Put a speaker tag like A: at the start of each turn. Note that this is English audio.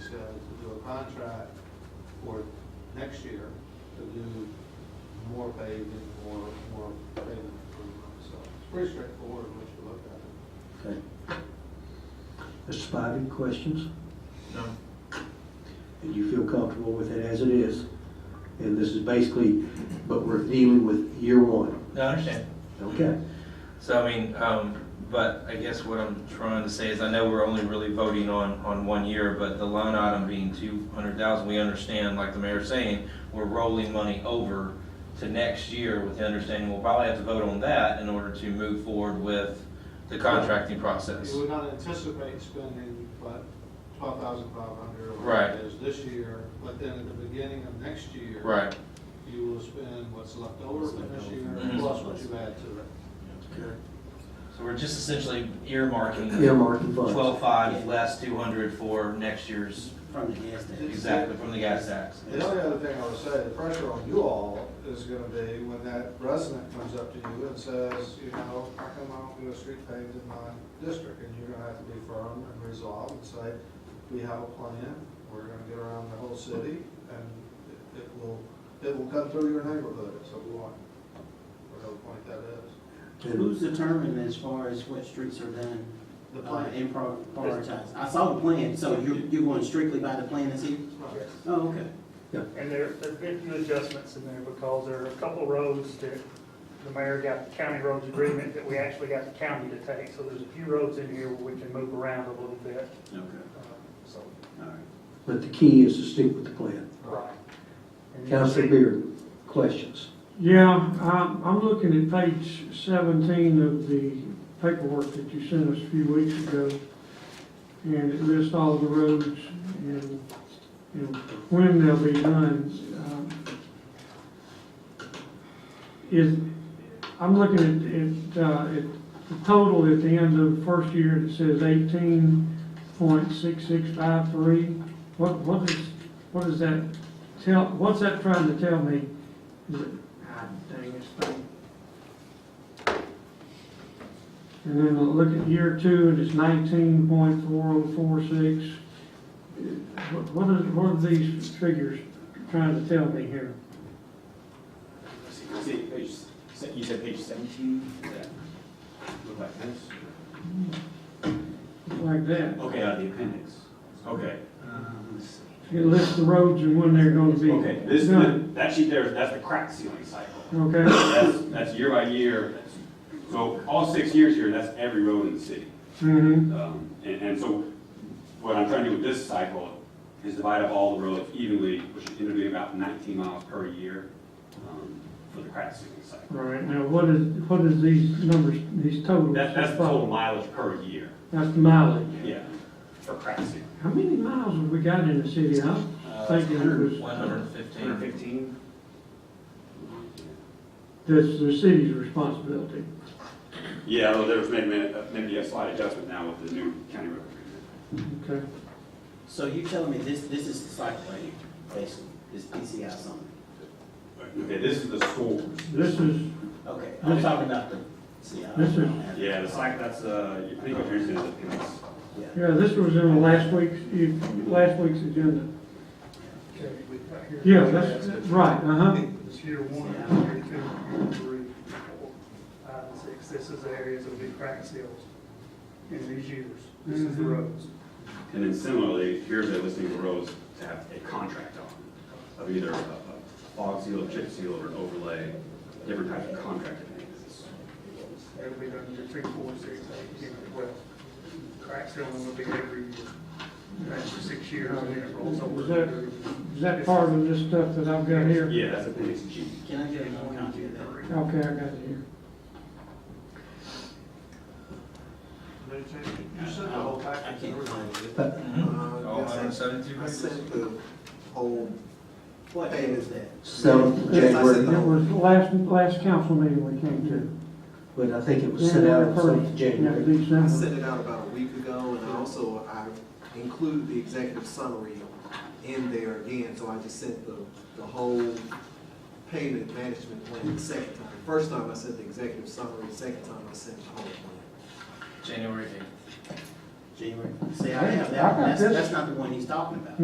A: uh, contract for next year to do more paving, more, more paving improvement, so it's pretty straightforward once you look at it.
B: Okay. Mr. Spivey, questions?
C: No.
B: And you feel comfortable with it as it is? And this is basically, but we're dealing with year one,
C: No, I understand.
B: okay?
C: So I mean, um, but I guess what I'm trying to say is, I know we're only really voting on, on one year, but the line item being two hundred thousand, we understand, like the mayor's saying, we're rolling money over to next year with the understanding we'll probably have to vote on that in order to move forward with the contracting process.
A: You would not anticipate spending, but twelve thousand five hundred.
C: Right.
A: Is this year, but then at the beginning of next year.
C: Right.
A: You will spend what's left over
D: What's
A: from
D: left
A: this
D: over
A: year,
D: from
C: this
A: plus
D: year.
A: what you add to it.
C: So we're just essentially earmarking.
B: Earmarking funds.
C: Twelve-five less two hundred for next year's,
D: From the gas station.
C: exactly, from the gas tax.
A: The only other thing I would say, the pressure on you all is gonna be when that resident comes up to you and says, you know, how come I don't do a street paved in my district? And you're gonna have to be firm and resolve and say, we have a plan, we're gonna get around the whole city, and it- it will, it will come through your neighborhood at some point, whatever point that is.
B: And
D: Who's determined as far as what streets are done
A: The
D: uh,
A: plan.
D: and prior- prioritized? I saw the plan, so you're, you're going strictly by the plan that's here? Oh, okay.
E: And there, there've been few adjustments in there because there are a couple roads that the mayor got the county roads agreement that we actually got the county to take. So there's a few roads in here where we can move around a little bit,
D: Okay,
E: uh, so,
D: all right.
B: But the key is to stick with the plan.
E: right. And you'll
B: Counselor
E: see-
B: Beard, questions?
F: Yeah, I'm, I'm looking at page seventeen of the paperwork that you sent us a few weeks ago. And it lists all the roads and, and when they'll be done. Um, Is, I'm looking at, at, uh, at the total at the end of the first year, it says eighteen point six six five three. What, what is, what is that tell, what's that trying to tell me? Is it God dang this thing. And then look at year two, and it's nineteen point four oh four six. What are, what are these figures trying to tell me here?
G: You said page, se- you said page seventeen?
D: Look like this.
F: Like that?
G: Okay, out of the appendix. Okay,
D: Let's see.
F: It lists the roads and when they're gonna be.
G: okay, this,
F: done.
G: that sheet there, that's the crack ceiling cycle.
F: Okay,
G: That's, that's year by year. So all six years here, that's every road in the city.
F: mm-hmm,
G: Um, And, and so what I'm trying to do with this cycle is divide up all the roads evenly, which is going to be about nineteen miles per year um, for the crack ceiling cycle.
F: right, now what is, what is these numbers, these totals?
G: That, that's the total mileage per year,
F: That's the mileage.
G: yeah, for crack ceiling.
F: How many miles have we got in the city? I'm thinking it
C: One
F: was,
C: Uh, hundred and fifteen.
G: Hundred fifteen?
F: that's the city's responsibility.
G: Yeah, although there was maybe, a- maybe a slight adjustment now with the new county road agreement.
F: Okay.
D: So you're telling me this, this is the cycle right here, basically, this PCI summary?
G: Okay, this is the source.
F: This is,
D: Okay, I'm
F: This-
D: talking about the, see, I
F: this
D: don't
F: is-
D: I don't have. it.
G: Yeah, the site, that's, uh, I think what yours is, it's,
D: Yeah.
F: yeah, this was in last week's, last week's agenda. Yeah, that's, right, uh-huh.
E: It's year one, year two, year three, four, five, and six. This is the areas that will be crack seals in these years. This is the
F: Mhm.
E: roads.
G: and then similarly, here's a listing of roads to have a contract on, of either a a fog seal, chip seal, or an overlay, different types of contract things.
E: It'll be done year three, four, six, eight, ten, twelve. Crack sealing will be every year. That's for six years and then it rolls over.
F: Is that- Is that part of this stuff that I've got here?
G: Yeah, that's appendix G.
D: Can I get another copy of that?
F: Okay, I got it here.
A: You sent the whole
D: I
A: package.
D: can't find it. Uh,
B: But
C: All hundred and seventy-two
H: I
C: pages?
H: sent the whole,
D: What day was that?
B: seventh
H: Yes, I
B: January,
H: said
F: It was the last, last council meeting we came to.
B: but I think it was sent out on seventh January.
F: Yeah,
H: I
F: December.
H: sent it out about a week ago, and also I included the executive summary in there again, so I just sent the, the whole payment management plan the second time. First time I sent the executive summary, second time I sent the whole plan.
C: January eighth.
D: January. See, I have
F: I
D: that,
F: got
D: that's,
F: this.
D: that's not the one he's talking about.